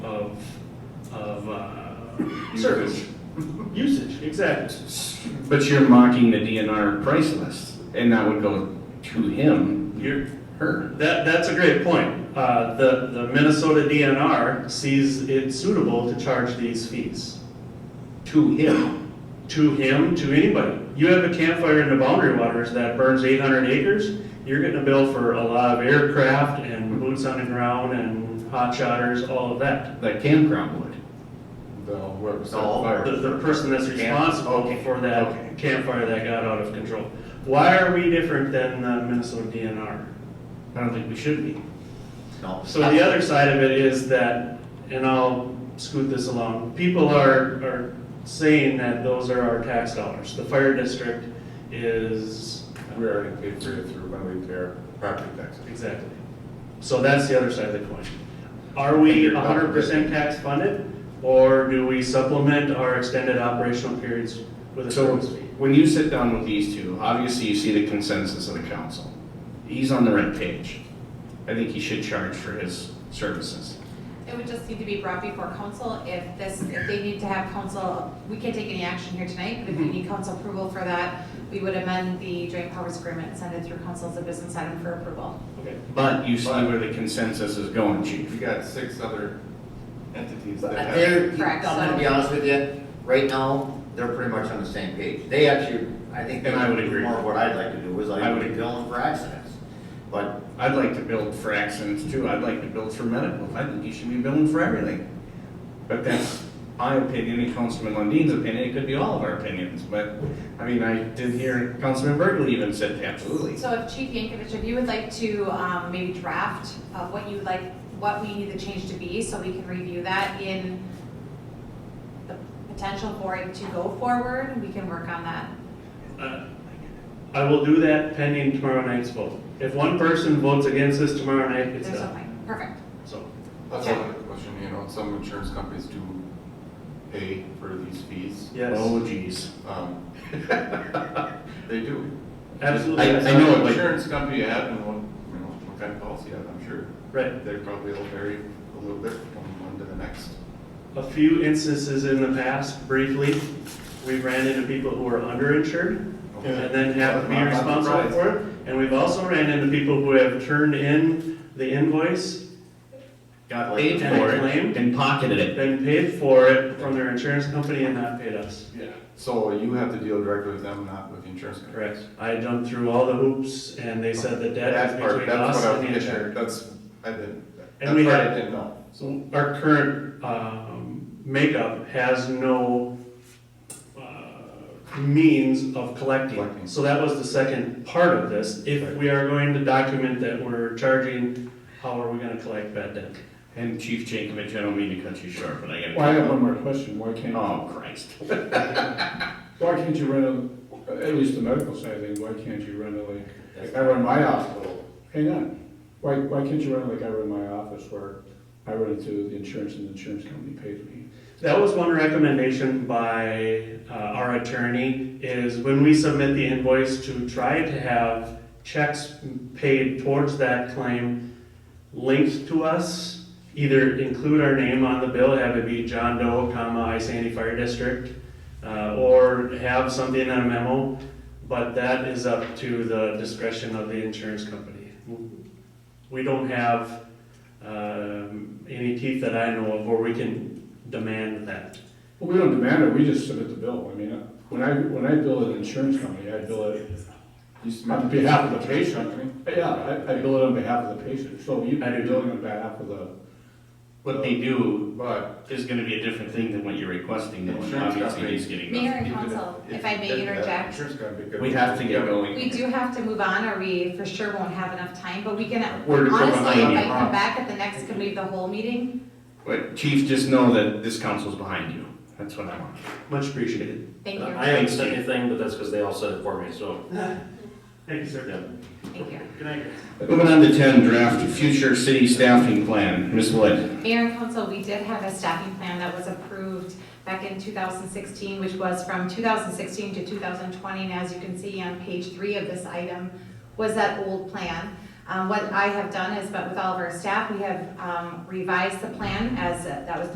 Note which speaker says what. Speaker 1: service, uh, usage, exactly.
Speaker 2: But you're mocking the DNR price list, and that would go to him,
Speaker 1: You're,
Speaker 2: her.
Speaker 1: that, that's a great point. Uh, the, the Minnesota DNR sees it suitable to charge these fees.
Speaker 2: To him.
Speaker 1: to him, to anybody. You have a campfire in the boundary waters that burns eight hundred acres, you're getting a bill for a lot of aircraft and boots on the ground and hot shotters, all of that.
Speaker 2: That campground would.
Speaker 3: The, whoever set the
Speaker 2: No,
Speaker 3: fire.
Speaker 1: The, the person that's
Speaker 2: Camp-
Speaker 1: responsible
Speaker 2: okay,
Speaker 1: for
Speaker 2: okay.
Speaker 1: that campfire that got out of control. Why are we different than the Minnesota DNR?
Speaker 2: I don't think we should be.
Speaker 4: No.
Speaker 1: So the other side of it is that, and I'll scoot this along, people are, are saying that those are our tax dollars. The fire district is
Speaker 3: We already paid for it through when we pay our property taxes.
Speaker 1: Exactly. So that's the other side of the coin. Are we hundred percent tax funded, or do we supplement our extended operational periods with a
Speaker 2: So
Speaker 1: service fee?
Speaker 2: when you sit down with these two, obviously you see the consensus of the council. He's on the right page. I think he should charge for his services.
Speaker 5: It would just need to be brought before council if this, if they need to have council, we can't take any action here tonight, but if we
Speaker 1: Mm-hmm.
Speaker 5: need council approval for that, we would amend the joint powers agreement, and send it through council as a business item for approval.
Speaker 1: Okay.
Speaker 2: But you see where the consensus is going,
Speaker 3: You
Speaker 2: chief.
Speaker 3: got six other entities that have.
Speaker 4: They're, I'm
Speaker 5: Correct,
Speaker 4: gonna
Speaker 5: so-
Speaker 4: be honest with you, right now, they're pretty much on the same page. They actually, I think.
Speaker 2: And I would agree.
Speaker 4: More of what I'd like to do is
Speaker 2: I
Speaker 4: like
Speaker 2: would agree.
Speaker 4: bill for accidents. But
Speaker 2: I'd like to build for accidents too. I'd like to build for medical. I think you should be building for everything. But that's my opinion and Councilman Lundin's opinion. It could be all of our opinions, but, I mean, I did hear Councilman Berkeley even said absolutely.
Speaker 5: So if Chief Yankovic, if you would like to um, maybe draft of what you would like, what we need the change to be, so we can review that in the potential for it to go forward, we can work on that.
Speaker 1: Uh, I will do that pending tomorrow night's vote. If one person votes against this tomorrow night, it's
Speaker 5: There's
Speaker 1: done,
Speaker 5: something, perfect.
Speaker 1: so.
Speaker 3: That's another question, you know, some insurance companies do pay for these fees.
Speaker 1: Yes,
Speaker 2: Oh geez.
Speaker 3: Um, They do.
Speaker 1: absolutely,
Speaker 2: I-
Speaker 1: yes.
Speaker 2: know it,
Speaker 3: What
Speaker 2: but-
Speaker 3: Insurance company you have and what, you know, what kind of policy you have, I'm sure.
Speaker 1: right.
Speaker 3: They probably will vary a little bit from one to the next.
Speaker 1: A few instances in the past, briefly, we ran into people who were underinsured, and then have to be responsible for it. And we've also ran into people who have turned in the invoice,
Speaker 2: Got paid for it and pocketed it.
Speaker 1: been paid for it from their insurance company and not paid us.
Speaker 3: Yeah, so you have to deal directly with them, not with the insurance company.
Speaker 1: Correct. I jumped through all the hoops and they said the debt
Speaker 3: That
Speaker 1: is
Speaker 3: part,
Speaker 1: between
Speaker 3: that's
Speaker 1: us
Speaker 3: what I was
Speaker 1: and the
Speaker 3: getting at.
Speaker 1: insured.
Speaker 3: That's, I didn't, that
Speaker 1: And we
Speaker 3: part
Speaker 1: had-
Speaker 3: I didn't know.
Speaker 1: So our current, um, makeup has no, uh, means of collecting.
Speaker 3: Collecting.
Speaker 1: So that was the second part of this. If we are going to document that we're charging, how are we gonna collect bad debt?
Speaker 2: And Chief Jankovic, I don't mean to cut you short, but I gotta.
Speaker 6: Well, I have one more question, why can't,
Speaker 2: Oh, Christ.
Speaker 6: why can't you rent a, at least the medical side of things, why can't you rent a, like, like I run my hospital, hang on. Why, why can't you rent like I run my office where I run it to the insurance and the insurance company pays me?
Speaker 1: That was one recommendation by uh, our attorney, is when we submit the invoice to try to have checks paid towards that claim linked to us, either include our name on the bill, have it be John Doe, comma, I Sandy Fire District, uh, or have something in a memo, but that is up to the discretion of the insurance company. We don't have um, any teeth that I know of where we can demand that.
Speaker 6: Well, we don't demand it, we just submit the bill, I mean, when I, when I bill an insurance company, I bill it
Speaker 3: You just
Speaker 6: on behalf of the patient. Yeah, I, I bill it on behalf of the patient, so you,
Speaker 1: I do
Speaker 6: you're
Speaker 1: too.
Speaker 6: billing on behalf of the,
Speaker 2: What they do
Speaker 3: But
Speaker 2: is gonna be a different thing than what you're requesting, though, and obviously he's getting.
Speaker 5: Mayor
Speaker 2: nothing.
Speaker 5: and
Speaker 3: even
Speaker 5: council,
Speaker 3: if
Speaker 5: if I
Speaker 3: you
Speaker 5: may
Speaker 3: did that,
Speaker 5: interject,
Speaker 3: Insurance company could.
Speaker 2: We have to get going.
Speaker 5: We do have to move on, or we for sure won't have enough time, but we can,
Speaker 2: We're
Speaker 5: honestly,
Speaker 2: just
Speaker 5: if I
Speaker 2: behind you,
Speaker 5: come
Speaker 2: huh?
Speaker 5: back at the next committee of the whole meeting,
Speaker 2: But Chief, just know that this council's behind you. That's what I want.
Speaker 1: Much appreciated.
Speaker 5: thank you,
Speaker 7: I haven't said anything, but that's because they all said it for me, so.
Speaker 1: Thank you, sir.
Speaker 5: thank you.
Speaker 1: Good night.
Speaker 2: Moving on to ten, draft future city staffing plan. Ms. Wood.
Speaker 5: Mayor and council, we did have a staffing plan that was approved back in 2016, which was from 2016 to 2020, and as you can see on page three of this item, was that old plan. Um, What I have done is, but with all of our staff, we have um, revised the plan as, uh, that was